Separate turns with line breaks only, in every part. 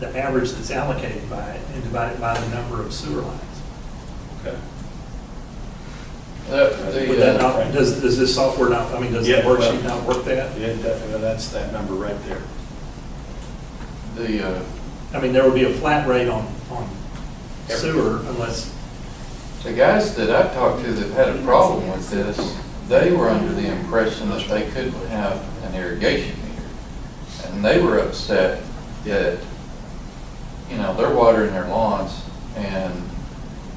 the average that's allocated by it and divide it by the number of sewer lines.
Okay.
The-
Would that
the, uh,
not, does, does this software not, I mean, does the
Yeah, well-
worksheet not work that?
Yeah, definitely, that's that number right there.
The, uh,
I mean, there would be a flat rate on, on
Everything.
sewer unless,
the guys that I talked to that had a problem with this, they were under the impression that they couldn't have an irrigation meter. And they were upset that, you know, they're watering their lawns and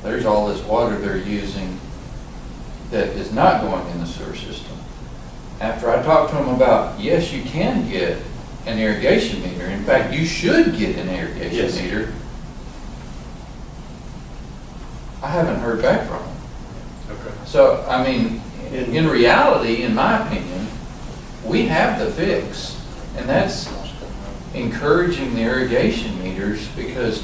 there's all this water they're using that is not going in the sewer system. After I talked to them about, yes, you can get an irrigation meter. In fact, you should get an
Yes.
irrigation meter. I haven't heard back from them.
Okay.
So, I mean,
In-
in reality, in my opinion, we have the fix. And that's encouraging the irrigation meters because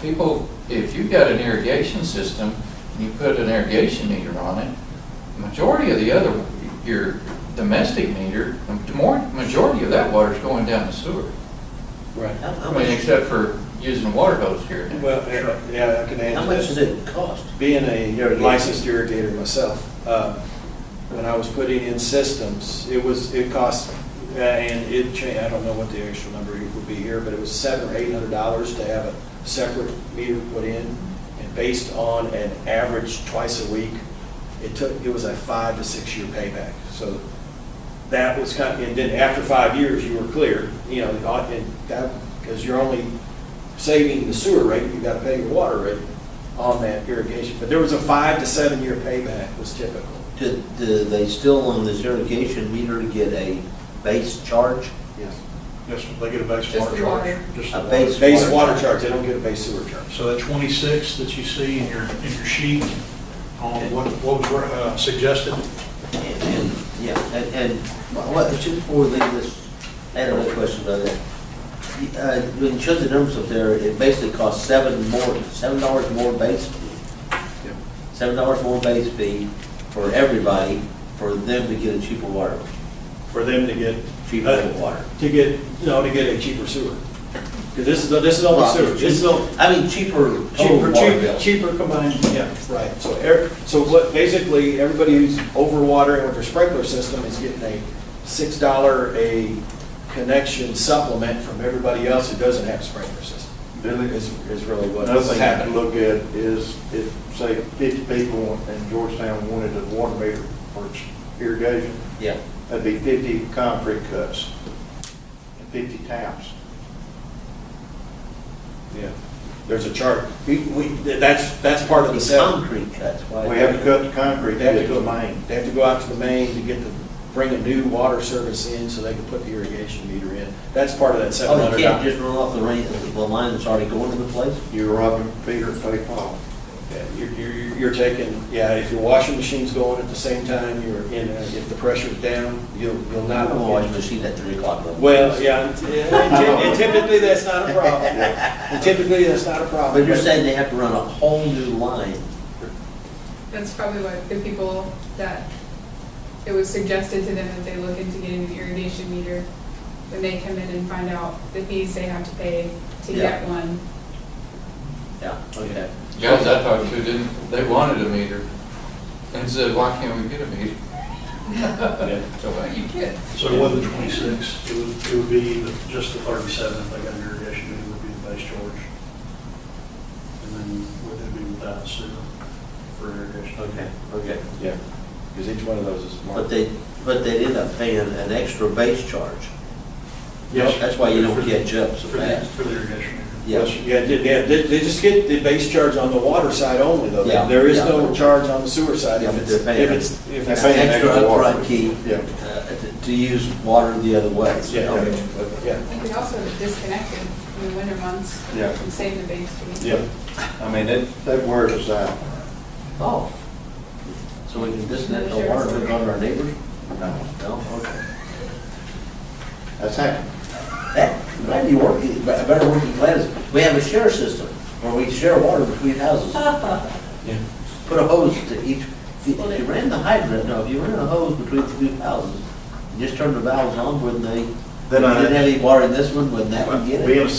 people, if you've got an irrigation system and you put an irrigation meter on it, majority of the other, your domestic meter, the more, majority of that water's going down the sewer.
Right.
I
How
mean,
much,
except for using water hose here and there.
Well, yeah, yeah, I can answer that.
how much does it cost?
being a licensed irrigator myself, uh, when I was putting in systems, it was, it cost, uh, and it changed, I don't know what the actual number would be here, but it was seven or eight hundred dollars to have a separate meter put in. And based on an average twice a week, it took, it was a five to six year payback. So that was kind of, and then after five years, you were clear, you know, uh, and that, because you're only saving the sewer rate, you gotta pay your water rate on that irrigation. But there was a five to seven year payback was typical.
Do, do they still on this irrigation meter get a base charge?
Yes.
Yes, they get a base
Just
water
the
charge.
water.
Just
A
the
base-
Base water charge, they don't get a base sewer charge.
So that 26 that you see in your, in your sheet on what, what was uh, suggested,
And- and- Yeah, and, and what, just before we leave this, I had another question about that. You- Uh, when you showed the numbers up there, it basically costs seven more, seven dollars more base fee. Seven dollars more base fee for everybody, for them to get a cheaper water,
For them to get.
cheaper water.
To get, no, to get a cheaper sewer. 'Cause this is, this is all the sewer, this is all.
I mean, cheaper total
Cheaper,
Oh, water
cheaper,
bill.
cheaper combined, yeah, right. So air, so what, basically, everybody who's overwatering with their sprinkler system is getting a six dollar a connection supplement from everybody else who doesn't have a sprinkler system.
Billy,
Is, is really
Another
what's
thing you can
happening.
look at is if, say, fifty people in Georgetown wanted a water meter for irrigation,
Yeah.
that'd be fifty concrete cuts and fifty taps.
Yeah, there's a chart. We, we, that's, that's part of the seven.
Concrete cuts, why? Oh,
We have to cut the concrete
They have to
to
go
the
to Maine,
main.
they have to go out to the main to get the, bring a new water service in so they can put the irrigation meter in. That's part of that seven
Oh,
hundred
you can't
dollars.
just run off the rain, the line that's already going to the place?
You're robbing Peter to pay Paul.
You're, you're, you're taking, yeah, if your washing machine's going at the same time, you're in, a- if the pressure's down, you'll, you'll
I
not.
don't watch machine at three o'clock. though.
Well, yeah, and ty- and typically, that's not a problem. And typically, that's not a problem.
But you're saying they have to run a whole new line?
That's probably what the people that, it was suggested to them that they look into getting an irrigation meter. When they come in and find out the fees they have to pay to get
Yeah.
one.
Yeah, okay.
Guys I talked to didn't, they wanted a meter and said, why can't we get a meter? So, well, you can.
so it wasn't 26, it would, it would be the- just the 37 if they got an irrigation, it would be the base charge. And then would it be without the sewer for irrigation?
Okay, okay.
Yeah, because each one of those is marked.
But they, but they'd end up paying an extra base charge. That's why you don't catch up so
For the,
fast.
for the irrigation.
Yeah.
Yeah, they, they- they- they just get the base charge on the water side only, though.
Yeah,
There is
yeah.
no charge on the sewer side
Yeah,
if
but
it's,
they're paying-
if it's, if
They're
it's.
An
paying
extra
extra water.
upfront key
Yeah.
uh, to- to use water the other way.
Yeah,
Okay.
yeah,
You could also disconnect it in the winter months
Yeah.
and save the base fee.
Yeah, I mean, that, that word is uh, out.
Oh. So we can disconnect the water and go to our neighbors?
No,
No, okay.
That's happening.
That might be working, a better working plan is, we have a share system where we share water between houses.
yeah.
Put a hose to each, if you- if you ran the hydrant, no, if you ran a hose between the two houses, you just turn the valves on, wouldn't they? If
Then I-
you Didn't have any water in this one, wouldn't that one get it?
Being a